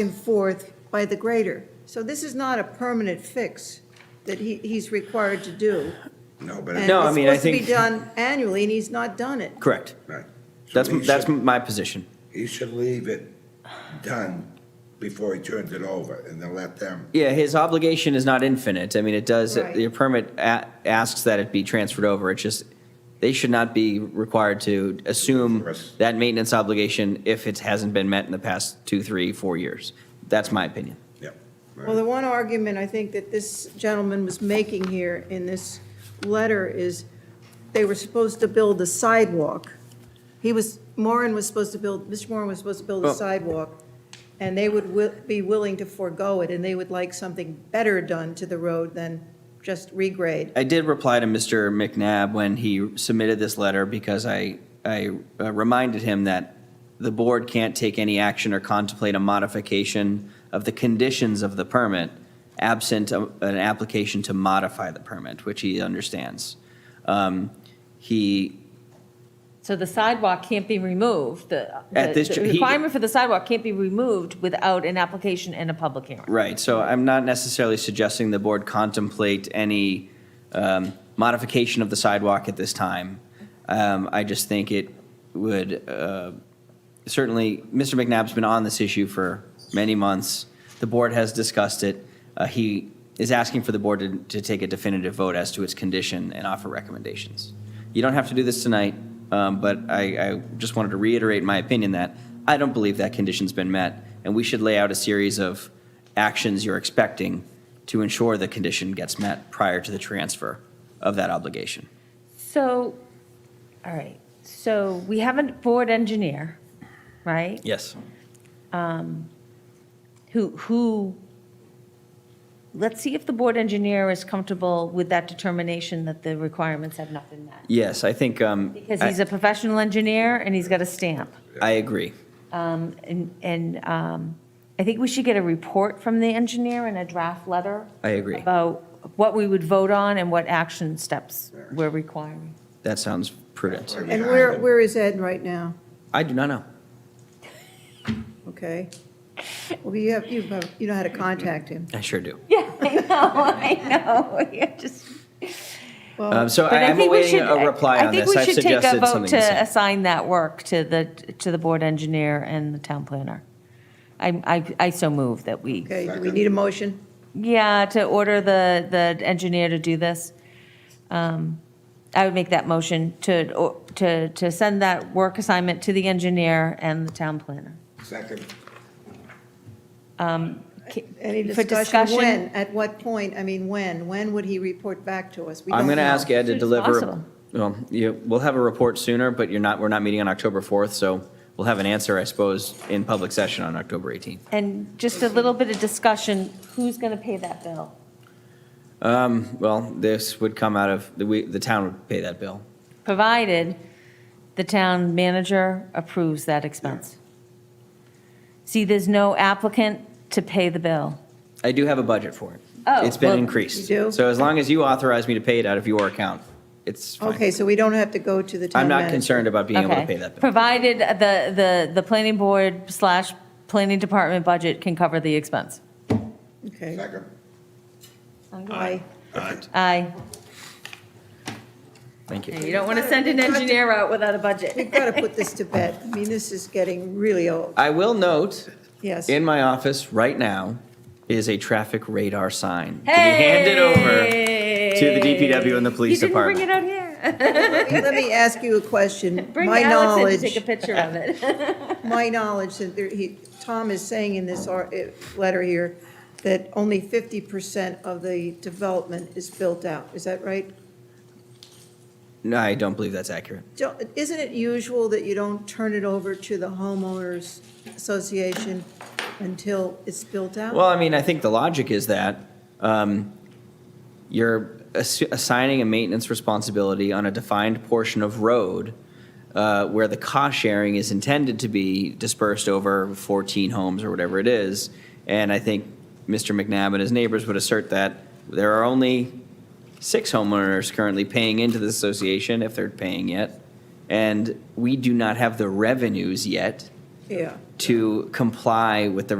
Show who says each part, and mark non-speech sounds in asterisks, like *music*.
Speaker 1: and forth by the grader. So this is not a permanent fix that he, he's required to do.
Speaker 2: No, but,
Speaker 1: And
Speaker 2: it-
Speaker 3: No, I mean, I
Speaker 1: It's
Speaker 3: think-
Speaker 1: supposed to be done annually, and he's not done it.
Speaker 3: Correct.
Speaker 2: right. So
Speaker 3: That's,
Speaker 2: he
Speaker 3: that's
Speaker 2: should-
Speaker 3: my position.
Speaker 2: He should leave it done before he turns it over, and then let them,
Speaker 3: Yeah, his obligation is not infinite. I mean, it does,
Speaker 1: Right.
Speaker 3: your permit a- asks that it be transferred over. It's just, they should not be required to assume
Speaker 2: Yes.
Speaker 3: that maintenance obligation if it hasn't been met in the past two, three, four years. That's my opinion.
Speaker 2: yeah. right.
Speaker 1: Well, the one argument I think that this gentleman was making here in this letter is they were supposed to build a sidewalk. He was, Moran was supposed to build, Mr. Moran was supposed to build a
Speaker 3: Well-
Speaker 1: sidewalk, and they would wi- be willing to forego it, and they would like something better done to the road than just regrade.
Speaker 3: I did reply to Mr. McNabb when he submitted this letter because I, I uh, reminded him that the board can't take any action or contemplate a modification of the conditions of the permit absent a- an application to modify the permit, which he understands. Um, He,
Speaker 4: So the sidewalk can't be removed, the,
Speaker 3: At this
Speaker 4: the
Speaker 3: ju- he-
Speaker 4: requirement for the sidewalk can't be removed without an application and a public hearing.
Speaker 3: Right, so I'm not necessarily suggesting the board contemplate any um, modification of the sidewalk at this time. Um, I just think it would, uh, certainly, Mr. McNabb's been on this issue for many months. The board has discussed it. Uh, He is asking for the board to- to take a definitive vote as to its condition and offer recommendations. You don't have to do this tonight, um, but I, I just wanted to reiterate my opinion that I don't believe that condition's been met, and we should lay out a series of actions you're expecting to ensure the condition gets met prior to the transfer of that obligation.
Speaker 4: So, all right, so we have a board engineer, right?
Speaker 3: Yes.
Speaker 4: Who, who, let's see if the board engineer is comfortable with that determination that the requirements have not been met.
Speaker 3: Yes, I think, um,
Speaker 4: Because he's
Speaker 3: I,
Speaker 4: a professional engineer and he's got a stamp.
Speaker 3: I agree.
Speaker 4: Um, And, and um, I think we should get a report from the engineer and a draft letter.
Speaker 3: I agree.
Speaker 4: About what we would vote on and what action steps we're requiring. *laughs*
Speaker 3: That sounds prudent.
Speaker 1: And where, where is Ed right now?
Speaker 3: I do not know.
Speaker 1: Okay? Well, you have, you have, you know how to contact him.
Speaker 3: I sure do.
Speaker 4: Yeah, I know, I know, yeah, just.
Speaker 3: Um,
Speaker 1: Well,
Speaker 3: so
Speaker 4: But
Speaker 3: I am
Speaker 4: think we
Speaker 3: awaiting
Speaker 4: should-
Speaker 3: a reply on this.
Speaker 4: I
Speaker 3: I've
Speaker 4: think we should take a
Speaker 3: suggested
Speaker 4: vote
Speaker 3: something. the
Speaker 4: to
Speaker 3: same.
Speaker 4: assign that work to the, to the board engineer and the town planner. I, I, I so move that we,
Speaker 1: okay, do we need a motion?
Speaker 4: yeah, to order the, the engineer to do this. Um, I would make that motion to, or- to, to send that work assignment to the engineer and the town planner.
Speaker 2: Second,
Speaker 1: Any
Speaker 4: For
Speaker 1: discussion?
Speaker 4: discussion?
Speaker 1: When, at what point, I mean, when, when would he report back to us? We
Speaker 3: I'm
Speaker 1: don't
Speaker 3: going to
Speaker 1: know.
Speaker 3: ask Ed to
Speaker 4: Soon as
Speaker 3: deliver,
Speaker 4: possible.
Speaker 3: well, you, we'll have a report sooner, but you're not, we're not meeting on October 4th, so we'll have an answer, I suppose, in public session on October 18th.
Speaker 4: And just a little bit of discussion, who's going to pay that bill?
Speaker 3: Um, Well, this would come out of, the, we, the town would pay that bill.
Speaker 4: Provided the town manager approves that expense. See, there's no applicant to pay the bill.
Speaker 3: I do have a budget for it.
Speaker 4: Oh,
Speaker 3: It's been
Speaker 4: well,
Speaker 3: increased.
Speaker 1: you do?
Speaker 3: So as long as you authorize me to pay it out of your account, it's fine.
Speaker 1: Okay, so we don't have to go to the town
Speaker 3: I'm not
Speaker 1: manager.
Speaker 3: concerned about being able to
Speaker 4: Okay.
Speaker 3: pay that bill.
Speaker 4: Provided the, the, the planning board slash planning department budget can cover the expense.
Speaker 1: Okay.
Speaker 2: second.
Speaker 1: Aye.
Speaker 4: Aye.
Speaker 3: Thank you.
Speaker 4: You don't want to send an engineer out without a
Speaker 1: We've *laughs*
Speaker 4: budget.
Speaker 1: got to put this to bed. I mean, this is getting really old.
Speaker 3: I will note,
Speaker 1: Yes.
Speaker 3: in my office right now is a traffic radar sign to be handed over to the DPW and the
Speaker 4: You
Speaker 3: police
Speaker 4: didn't
Speaker 3: department.
Speaker 4: bring it out here. *laughs*
Speaker 1: Let me- let me ask you a question.
Speaker 4: Bring
Speaker 1: My
Speaker 4: Alex in to take a
Speaker 1: knowledge,
Speaker 4: picture of it. *laughs*
Speaker 1: my knowledge that there, he, Tom is saying in this ar- eh, letter here that only 50% of the development is built out. Is that right?
Speaker 3: No, I don't believe that's accurate.
Speaker 1: Don't- Isn't it usual that you don't turn it over to the homeowners association until it's built out?
Speaker 3: Well, I mean, I think the logic is that um, you're ass- assigning a maintenance responsibility on a defined portion of road uh, where the cost sharing is intended to be dispersed over 14 homes or whatever it is. And I think Mr. McNabb and his neighbors would assert that there are only six homeowners currently paying into the association, if they're paying yet. And we do not have the revenues yet
Speaker 1: Yeah.
Speaker 3: to comply with the